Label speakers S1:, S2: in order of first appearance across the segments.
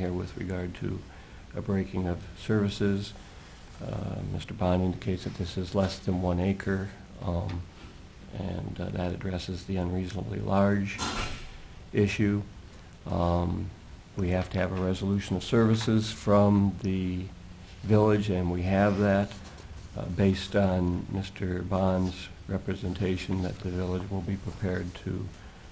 S1: here with regard to a breaking of services. Uh, Mr. Bond indicates that this is less than one acre, um, and uh, that addresses the unreasonably large issue. Um, We have to have a resolution of services from the village, and we have that, uh, based on Mr. Bond's representation that the village will be prepared to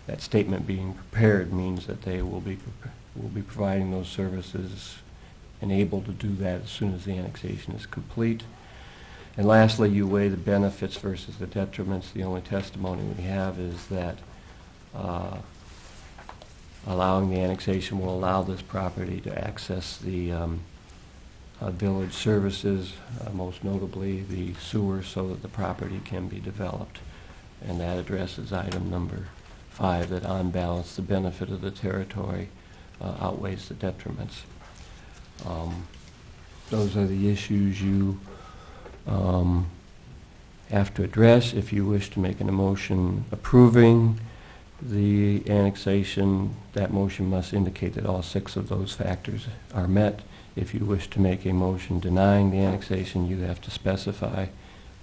S1: that statement being prepared means that they will be, prep- will be providing those services and able to do that as soon as the annexation is complete. And lastly, you weigh the benefits versus the detriments. The only testimony we have is that uh, allowing the annexation will allow this property to access the um, uh, village services, uh, most notably the sewer, so that the property can be developed. And that addresses item number five, that on balance, the benefit of the territory uh, outweighs the detriments. Um, Those are the issues you um, have to address if you wish to make an emotion approving the annexation. That motion must indicate that all six of those factors are met. If you wish to make a motion denying the annexation, you have to specify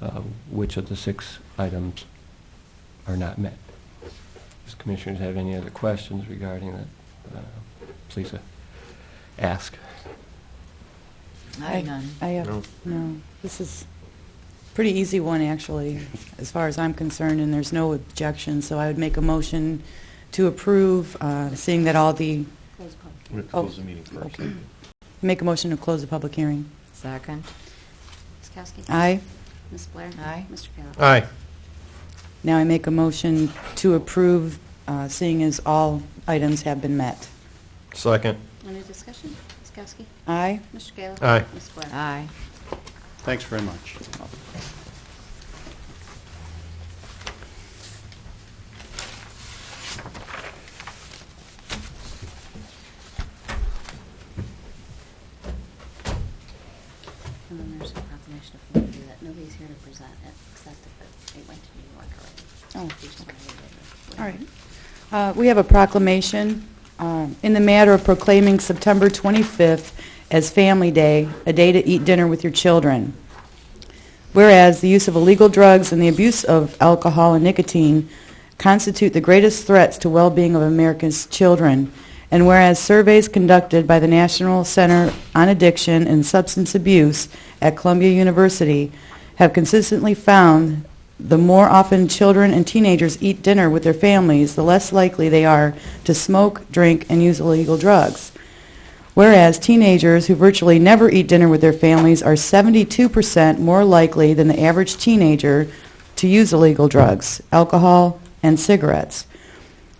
S1: uh, which of the six items are not met. Does commissioners have any other questions regarding that? Uh, Please uh, ask.
S2: I have none.
S3: I
S4: No.
S3: have, no, this is pretty easy one, actually, as far as I'm concerned, and there's no objection, so I would make a motion to approve, uh, seeing that all the,
S4: We have to
S3: Oh,
S4: close the meeting first.
S3: okay. make a motion to close the public hearing.
S2: Second.
S5: Ms. Kowski?
S3: Aye.
S5: Ms. Blair?
S2: Aye.
S5: Mr. Kayla?
S4: Aye.
S3: Now I make a motion to approve, uh, seeing as all items have been met.
S4: Second.
S5: Any discussion? Ms. Kowski?
S3: Aye?
S5: Mr. Kayla?
S4: Aye.
S5: Ms. Blair?
S2: Aye.
S6: Thanks very much.
S5: And then there's a proclamation if you want to do that. Nobody's here to present it, except that it went to New York already.
S3: Oh,
S5: We just wanted to-
S3: All right. Uh, We have a proclamation uh, in the matter of proclaiming September 25th as Family Day, a day to eat dinner with your children. Whereas the use of illegal drugs and the abuse of alcohol and nicotine constitute the greatest threats to well-being of America's children, and whereas surveys conducted by the National Center on Addiction and Substance Abuse at Columbia University have consistently found the more often children and teenagers eat dinner with their families, the less likely they are to smoke, drink, and use illegal drugs. Whereas teenagers who virtually never eat dinner with their families are 72% more likely than the average teenager to use illegal drugs, alcohol, and cigarettes.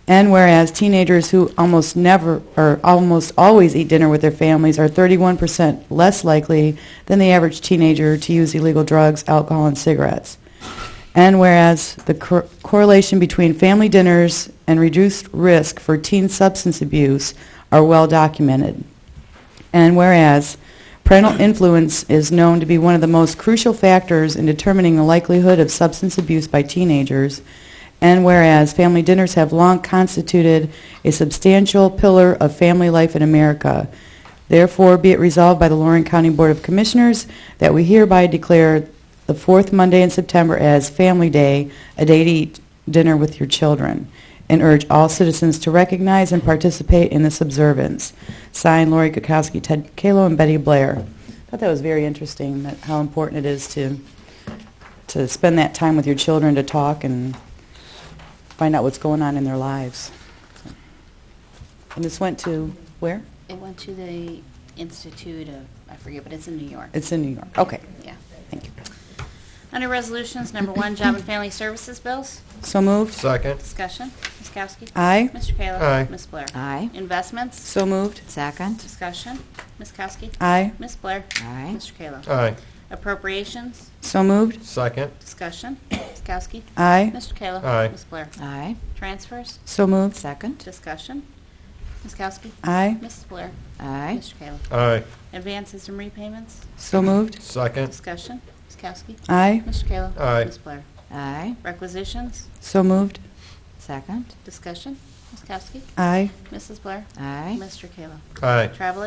S3: And whereas teenagers who almost never or almost always eat dinner with their families are 31% less likely than the average teenager to use illegal drugs, alcohol, and cigarettes. And whereas the cor- correlation between family dinners and reduced risk for teen substance abuse are well documented. And whereas parental influence is known to be one of the most crucial factors in determining the likelihood of substance abuse by teenagers, and whereas family dinners have long constituted a substantial pillar of family life in America, therefore be it resolved by the Lorraine County Board of Commissioners that we hereby declare the fourth Monday in September as Family Day, a day to eat dinner with your children, and urge all citizens to recognize and participate in this observance. Signed, Lori Kukowski, Ted Kalo, and Betty Blair. I thought that was very interesting, that how important it is to, to spend that time with your children to talk and find out what's going on in their lives. And this went to, where?
S5: It went to the Institute of, I forget, but it's in New York.
S3: It's in New York. Okay,
S5: Yeah.
S3: thank you.
S5: Under resolutions, number one, Job and Family Services bills.
S3: So moved.
S4: Second.
S5: Discussion. Ms. Kowski?
S3: Aye.
S5: Mr. Kayla?
S4: Aye.
S5: Ms. Blair?
S2: Aye.
S5: Investments?
S3: So moved.
S2: Second.
S5: Discussion. Ms. Kowski?
S3: Aye.
S5: Ms. Blair?
S2: Aye.
S5: Mr. Kayla?
S4: Aye.
S5: Appropriations?
S3: So moved.
S4: Second.
S5: Discussion. Ms. Kowski?
S3: Aye.
S5: Mr. Kayla?
S4: Aye.
S5: Ms. Blair?
S2: Aye.
S5: Transfers?
S3: So moved.
S2: Second.
S5: Discussion. Ms. Kowski?
S3: Aye.
S5: Ms. Blair?
S2: Aye.
S5: Mr. Kayla?
S4: Aye.
S5: Advances and repayments?
S3: So moved.
S4: Second.
S5: Discussion. Ms. Kowski?
S3: Aye.
S5: Mr. Kayla?
S4: Aye.
S5: Ms. Blair?
S2: Aye.
S5: Requisitions?
S3: So moved.
S2: Second.
S5: Discussion. Ms. Kowski?
S3: Aye.
S5: Mrs. Blair?
S2: Aye.
S5: Mr. Kayla?
S4: Aye.
S5: Travel